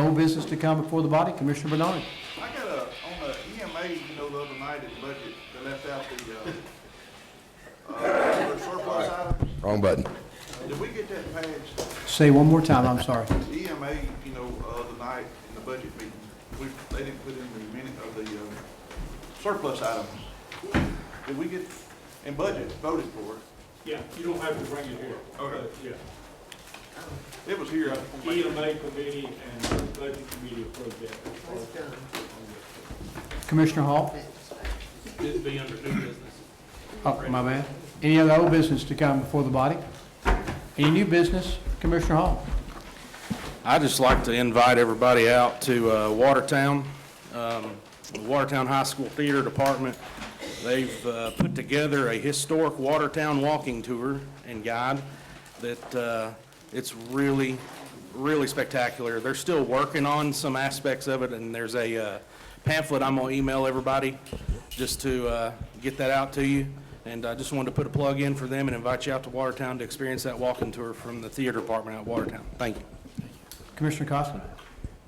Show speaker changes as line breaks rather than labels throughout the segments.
old business to come before the body, Commissioner Bernard.
I got a, on the EMA, you know, the other night at budget, they left out the, uh, uh, surplus items.
Wrong button.
Did we get that passed?
Say one more time, I'm sorry.
The EMA, you know, uh, the night in the budget meeting, we, they didn't put in the minute of the, uh, surplus items. Did we get, in budget, voted for it?
Yeah, you don't have to bring it here.
Okay.
But, Yeah,
It was here. I just wanna make sure.
EMA committee and budget committee approved that.
Commissioner Hall?
This be under new business.
Oh, my bad. Any other old business to come before the body? Any new business, Commissioner Hall?
I'd just like to invite everybody out to uh, Watertown, um, the Watertown High School Theater Department. They've uh, put together a historic Watertown walking tour and guide that uh, it's really, really spectacular. They're still working on some aspects of it, and there's a uh, pamphlet I'm going to email everybody just to uh, get that out to you. And I just wanted to put a plug in for them and invite you out to Watertown to experience that walking tour from the theater department out at Watertown. Thank you.
Commissioner Costello?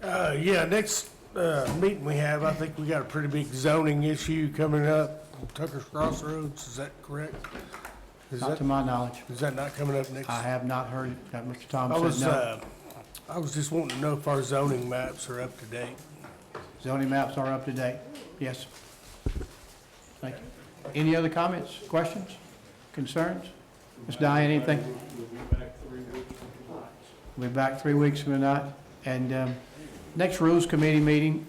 Uh, yeah, next, uh, meeting we have, I think we got a pretty big zoning issue coming up, Tucker's Crossroads, is that correct? Is
Not
that,
to my knowledge.
is that not coming up next?
I have not heard that Mr.
I
Thomas
was,
said no.
uh, I was just wanting to know if our zoning maps are up to date.
Zoning maps are up to date. Yes. Thank you. Any other comments, questions, concerns? Ms. Diane, anything?
We'll be back three weeks from tonight.
We'll be back three weeks from tonight. And um, next Rules Committee meeting,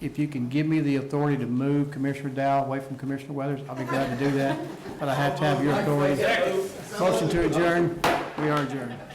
if you can give me the authority to move Commissioner Dow away from Commissioner Weathers, I'll be glad to do that. But I have to have your authority. Motion to adjourn. We are adjourned.